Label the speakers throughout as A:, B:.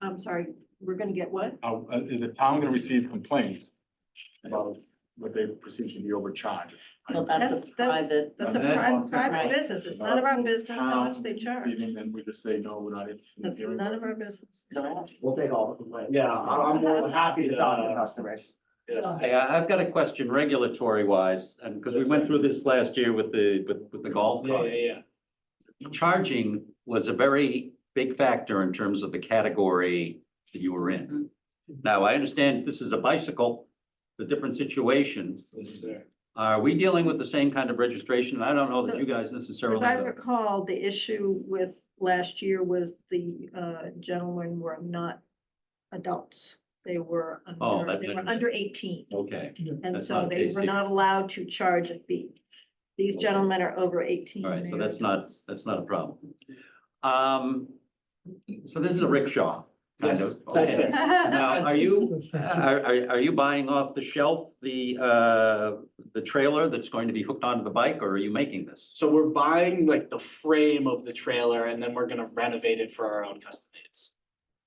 A: I'm sorry, we're gonna get what?
B: Uh, uh, is the town gonna receive complaints about what they perceive to be overcharged?
C: Well, that's
A: That's, that's,
C: a private,
A: that's a
B: Now, that
A: private,
B: one's
A: private
C: different.
A: business. It's none of our business how much they charge.
B: Even then we just say, no, we're not interested in
A: That's
B: hearing.
A: none of our business.
C: no,
D: We'll take all the complaints.
E: Yeah, I- I'm more than happy to.
D: It's on the customers.
F: Hey, I, have got a question regulatory wise, and because we went through this last year with the, with, with the golf
E: Yeah,
F: cart.
E: yeah, yeah.
F: Charging was a very big factor in terms of the category that you were in.
E: Mm-hmm.
F: Now, I understand this is a bicycle, the different situations.
E: Yes, sir.
F: Are we dealing with the same kind of registration? I don't know that you guys
A: As
F: necessarily.
A: I
F: know.
A: recall, the issue with last year was the uh, gentlemen were not adults. They were
F: Oh,
A: under,
F: that-
A: they were under eighteen,
F: Okay,
A: and
F: that's
A: so
F: not
A: they were
F: basic.
A: not allowed to charge a fee. These
F: Okay.
A: gentlemen are over eighteen.
F: all right, so
A: They're
F: that's not, that's not a problem. Um, so this is a rickshaw. kind
E: Yes,
F: of,
E: that's
F: okay.
E: it.
F: Now, are you, are, are, are you buying off the shelf the, uh, the trailer that's going to be hooked onto the bike, or are you making this?
E: So we're buying like the frame of the trailer and then we're gonna renovate it for our own custom needs.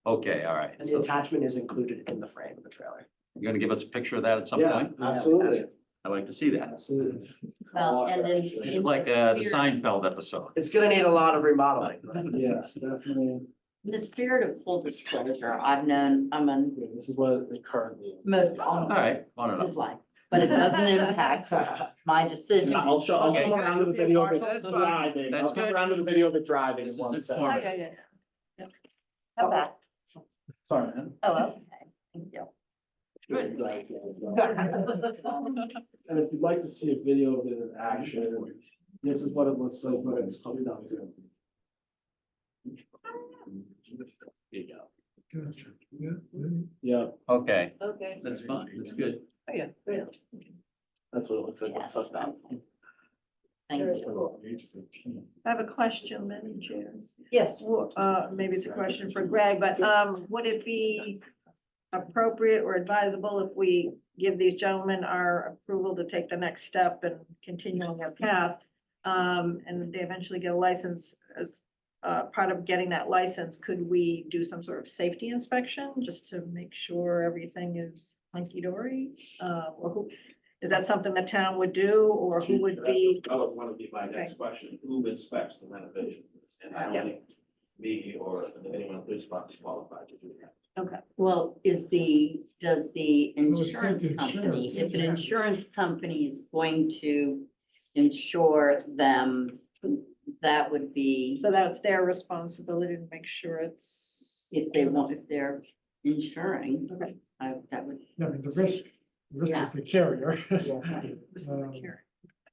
F: Okay, all right.
D: And the
F: So
D: attachment is included in the frame of the trailer.
F: You're gonna give us a picture of that at some point?
D: absolutely.
F: I'd like to see that.
D: Absolutely.
C: well, and then. in
F: It's like
C: the
F: uh, the
C: spirit-
F: Seinfeld episode.
D: It's gonna need a lot of remodeling. but-
E: Yes, definitely.
C: In the spirit of full disclosure, I've known, I'm on
E: This is what it currently.
C: most
F: All
C: all of
F: right, on and
C: his
F: off.
C: life, but it doesn't impact my decision.
E: I'll show, I'll
F: Okay.
E: come around to the video of it
F: That's fine.
E: driving. I'll
F: That's
E: come
F: good.
E: around to the video of it driving
F: This
E: in
F: is
E: one second.
F: informative.
A: Yeah, yeah, yeah.
C: How about,
E: Sorry, man.
G: Uh,
C: oh, okay, thank you.
F: Good.
E: Like, yeah, yeah. And if you'd like to see a video of it in action, this is what it looks like, but it's coming down to. Yeah,
F: Okay,
C: Okay.
F: that's fine, that's good.
A: Oh, yeah.
E: that's what it looks like.
C: Yes.
E: It's up
C: Thank you.
A: I have a question, Madam Chair.
C: Yes.
A: Well, uh, maybe it's a question for Greg, but, um, would it be appropriate or advisable if we give these gentlemen our approval to take the next step and continue on their path? Um, and they eventually get a license as, uh, part of getting that license, could we do some sort of safety inspection just to make sure everything is hunky dory? Uh, or who, is that something the town would do or who would be?
H: That was one of the- my next question, who inspects the renovation? And I
A: Yeah.
H: don't think me or anyone in this box is qualified to do that.
C: Well, is the, does the insurance company, if an insurance company is going to insure them, that would be
A: So that's their responsibility to make sure it's.
C: if they want, if they're insuring,
A: Okay.
C: I- that would.
I: I mean, the risk, the risk
C: Yeah.
I: is the carrier.
A: Just the
I: Um,
A: care.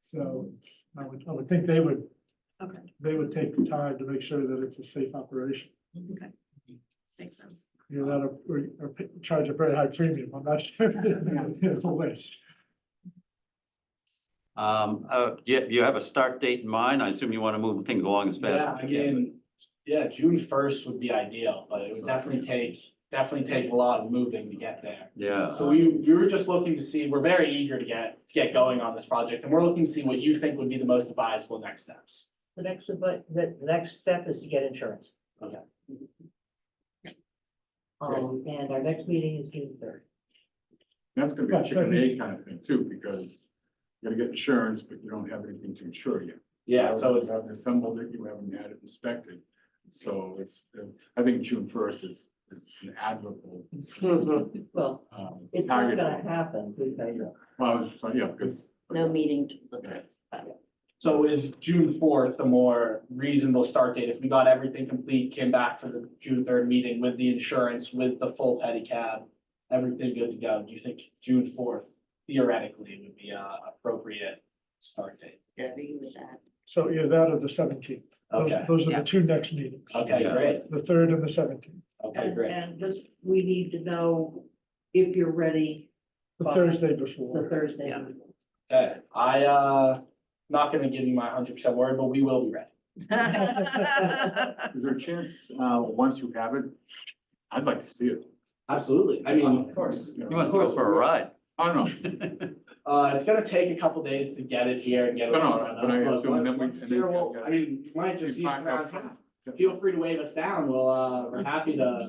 I: So I would, I would think they would,
A: Okay,
I: they would take the time to make sure that it's a safe operation.
A: okay. Makes sense.
I: You're not, a- or, or p- charge a very high premium. I'm not sure. It's a waste.
F: Um, uh, do you, do you have a start date in mind? I assume you want to move things along as
E: Yeah,
F: fast
E: I
F: as you can.
E: mean, yeah, June first would be ideal, but it would definitely take, definitely take a lot of moving to get there.
F: Yeah,
E: So we, we were just looking to see, we're very eager to get, to get going on this project, and we're looking to see what you think would be the most advisable next steps.
G: The next, but the the next step is to get insurance.
E: Okay.
G: Um, and our next meeting is June third.
B: That's gonna be a chicken and egg kind of thing too, because you're gonna get insurance, but you don't have anything to insure yet.
E: Yeah, so it's,
B: You haven't assembled it, you haven't had it inspected, so it's, uh, I think June first is, is an admirable.
D: Mm-hmm.
G: Well,
B: um,
G: it's not
B: target.
G: gonna happen because
B: Well, I was, just- yeah, because.
C: No meeting to look
B: Okay.
C: at.
E: so is June fourth a more reasonable start date? If we got everything complete, came back for the June third meeting with the insurance, with the full pedicab, everything good to go, do you think June fourth theoretically would be a appropriate start date?
C: Debbie was that.
I: So either that or the seventeenth. Those,
E: Okay.
I: those are
A: Yeah.
I: the two next meetings.
E: Okay,
F: Yeah.
E: great,
I: The third and the seventeenth.
E: okay, great.
G: And this, we need to know if you're ready
I: The
G: Fine.
I: Thursday
G: for
I: before.
G: Thursday.
A: Yeah.
E: Okay, I, uh, not gonna give you my hundred percent word, but we will be ready.
B: Is there a chance, uh, once you have it, I'd like to see it.
E: Absolutely, I mean, of course.
B: You know,
F: you must go for a ride.
B: I don't know,
E: Uh, it's gonna take a couple days to get it here and get it.
B: No, no,
E: set up,
B: but I
E: but
B: assume
E: once-
B: then we-
E: once it's here, we'll- I mean, you might
B: Just
E: just use
B: knock
E: it
B: out
E: downtown. Feel free to wave us down. We'll, uh, we're happy to